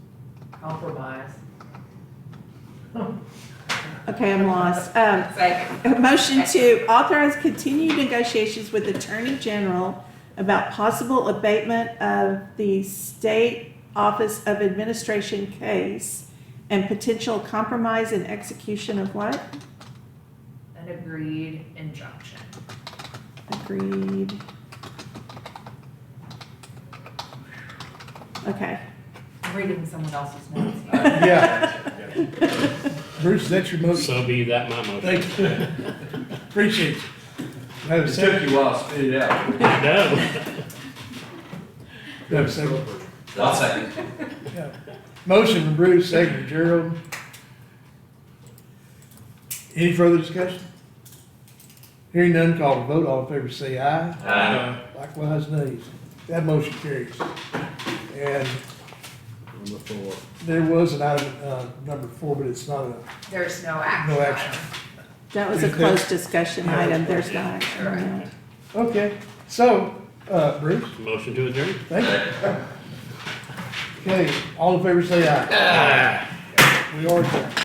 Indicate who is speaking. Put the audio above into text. Speaker 1: compromise.
Speaker 2: Okay, I'm lost. Um,
Speaker 3: Second.
Speaker 2: a motion to authorize continued negotiations with Attorney General about possible abatement of the State Office of Administration case and potential compromise and execution of what?
Speaker 1: An agreed injunction.
Speaker 2: Agreed. Okay.
Speaker 1: I'm reading someone else's notes here.
Speaker 4: Yeah. Bruce, that's your motion.
Speaker 5: So be that my motion.
Speaker 4: Thank you. Appreciate you. Have a
Speaker 6: It took
Speaker 4: second.
Speaker 6: you a while to spit it out.
Speaker 5: I know.
Speaker 4: Have a second.
Speaker 6: I'll second.
Speaker 4: Yeah. Motion from Bruce, second from Gerald. Any further discussion? Hearing none, call to vote. All in favor, say aye.
Speaker 6: Aye.
Speaker 4: Likewise, nays. That motion carries. And
Speaker 5: Number four.
Speaker 4: there was an item, uh, number four, but it's not a,
Speaker 1: There's no action.
Speaker 4: No action.
Speaker 2: That was a
Speaker 4: Is that-
Speaker 2: closed discussion item. There's no action on that.
Speaker 4: okay. So, uh, Bruce,
Speaker 5: Motion to adjourn?
Speaker 4: thank you. Okay, all in favor, say aye. We are adjourned.